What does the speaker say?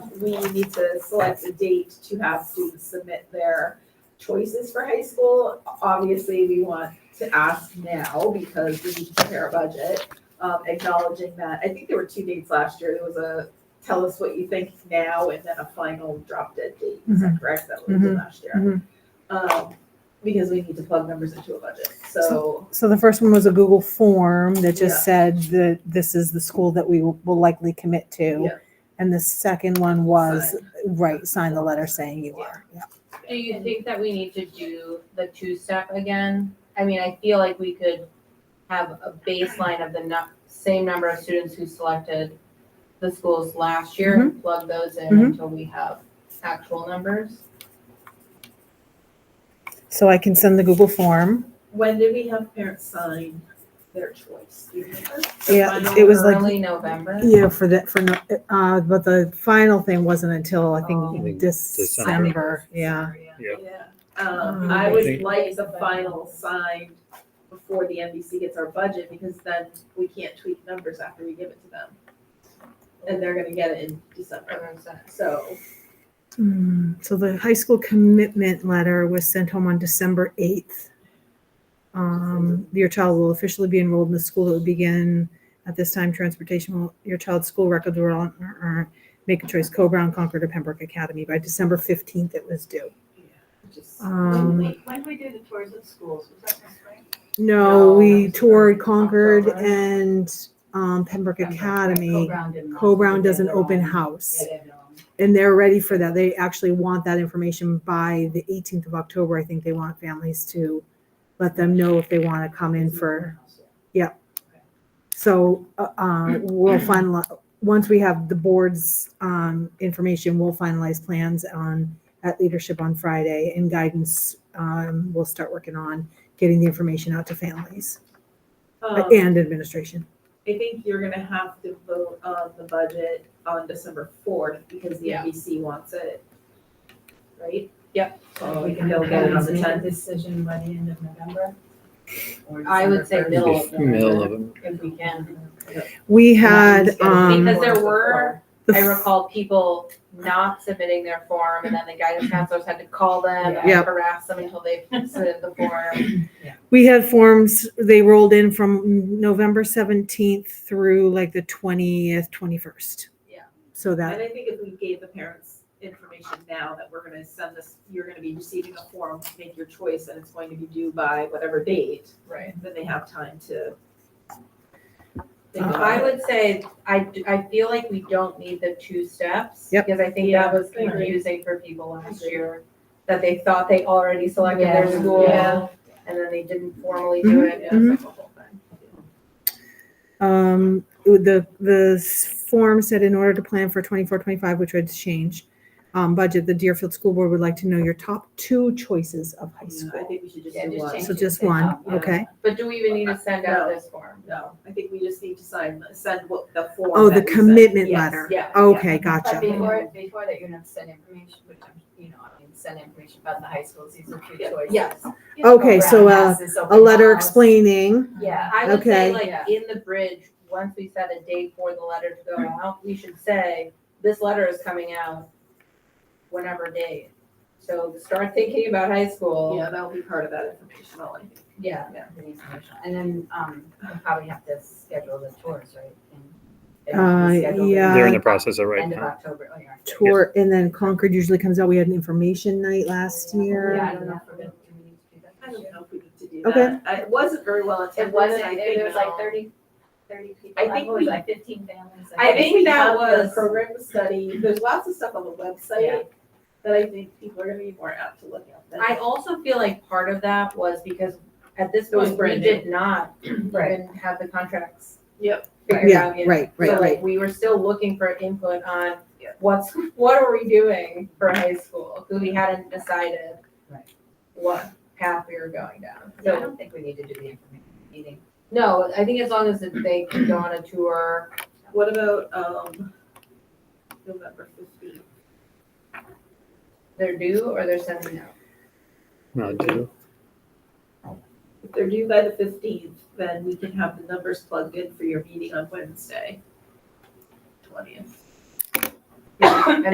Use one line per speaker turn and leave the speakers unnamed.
we need to select a date to have students submit their choices for high school. Obviously, we want to ask now because we need to prepare a budget, um, acknowledging that, I think there were two dates last year. There was a tell us what you think now and then a final drop dead date. Is that correct? That we did last year. Um, because we need to plug numbers into a budget. So,
So the first one was a Google form that just said that this is the school that we will will likely commit to.
Yeah.
And the second one was, right, sign the letter saying you are. Yeah.
Do you think that we need to do the two-step again? I mean, I feel like we could have a baseline of the nu- same number of students who selected the schools last year and plug those in
Mhm.
until we have actual numbers.
So I can send the Google form.
when did we have parents sign their choice? Do you remember? The
Yeah,
final
it was like-
Early November.
Yeah, for the, for, no- uh, but the final thing wasn't until I
Oh. I
think
think
December. Yeah.
Yeah, um,
Mm.
I
I
would
think-
like the final signed before the NBC gets our budget, because then we can't tweak numbers after we give it to them. And they're gonna get it in December,
uh,
so,
Hmm, So the high school commitment letter was sent home on December 8th. Um, Your child will officially be enrolled in the school that will begin at this time. Transportation will, your child's school records will, uh, uh, make a choice, Co-Brown, Concord, or Pembroke Academy. By December 15th, it was due.
just.
When
Um,
we, when we do the tours at schools, was that this spring?
No,
No, that
we
was
toured
during
Concord
October.
and um, Pembroke Academy.
Co-Brown didn't.
Co-Brown does an open house.
Yeah, they have their own.
and they're ready for that. They actually want that information by the 18th of October. I think they want families to let them know if they want to come in for. So uh, uh, we'll finalize once we have the board's um, information. We'll finalize plans on at leadership on Friday and guidance. Um, we'll start working on getting the information out to families
Oh.
Um,
Uh, and administration.
I think you're gonna have to vote on the budget on December fourth, because the
Yeah.
NBC wants it. Right?
Yep.
So we can go get it on the tenth.
decision by the end of November?
I would say middle of
Middle
November,
of them.
if we can.
We had um,
Because there were
the
I recall people not submitting their form
Mm.
and then the guidance counselors had to call them and
Yeah.
harass them until they submitted the form.
We had forms, they rolled in from November seventeenth through like the twentieth, twenty-first.
Yeah.
So
And
that,
I think if we gave the parents information now that we're gonna send this, you're gonna be receiving a form to make your choice and it's going to be due by whatever date,
Right.
then they have time to. think
Uh-huh.
about
I
it.
would say, I, d- I feel like we don't need the two steps.
Yep.
Because I think
Yeah,
that was
I agree.
confusing for people last year, that they thought they already selected their
Yeah.
school.
Yeah.
And then they didn't formally
Mm-hmm.
do it, and it was like a whole thing.
um, with the, the s- form said in order to plan for twenty-four, twenty-five, which would change, um, budget, the Deerfield School Board would like to know your top two choices of high
Yeah, I
school.
think we should just
Yeah,
do
just
one.
change
So
it
just
to
one,
top, yeah.
okay?
But do we even need to send out this form?
No, I think we just need to sign, send what the form.
Oh, the
that we sent.
commitment
Yes,
letter.
yeah,
Okay,
But
gotcha.
before, before that, you're gonna send information, which I'm, you know, I mean, send information about the high schools, these are two
Yeah.
choices.
Yes.
Okay, so
Brown
a,
has this open
a letter
house.
explaining,
Yeah,
I would
Okay.
say like
Yeah.
in the bridge, once we set a date for the letter to go out, we should say, this letter is coming out whenever date. So start thinking about high school.
Yeah, that'll be part of that information, I'll, I think.
yeah, yeah, the information. and then, um, we'll probably have to schedule the tours, right? And they have to
Uh,
be scheduled
yeah.
They're in the process of right
End of
now.
October, oh, yeah.
tour, and then Concord usually comes out. We had an information night last year.
Yeah, I don't know if we're gonna, do we need to do that
I
this
don't
year?
know if we need to do
Okay.
that. I- It wasn't very well attended.
It wasn't,
I
it
think-
was like thirty, thirty people.
I think
What was
we-
it, like fifteen families.
I think that
that
was
was-
program study. There's lots of stuff on the
Yeah.
website that I think people are gonna be more apt to look at. than-
I also feel like part of that was because at this
It was
point, we
brand
did not
Right.
even have the contracts.
Yep.
figured
Yeah,
out yet.
right, right,
So
right.
like, we were still looking for input on
Yeah.
what's, what are we doing for high school? Because we hadn't decided
Right.
what path we were going down.
Yeah,
So
I don't think we need to do the information meeting.
No, I think as long as they can go on a tour.
What about, um, November fifteenth?
They're due or they're sending out.
No, do.
If they're due by the fifteenth, then we can have the numbers plugged in for your meeting on Wednesday, twentieth.